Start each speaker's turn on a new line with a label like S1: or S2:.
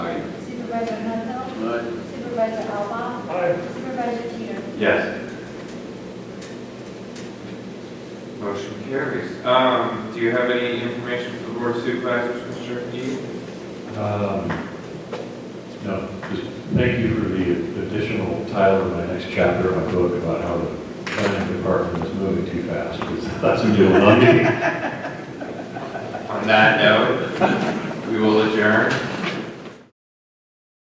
S1: Supervisor Hunsell.
S2: Aye.
S1: Supervisor Alba.
S3: Aye.
S1: Supervisor Teeter.
S4: Yes. Motion carries. Um, do you have any information for the board of supervisors, Mr. E?
S5: Um, No, just thank you for the additional title in my next chapter of my book about how the planning department is moving too fast, because that's a deal, I
S4: On that note, we will adjourn.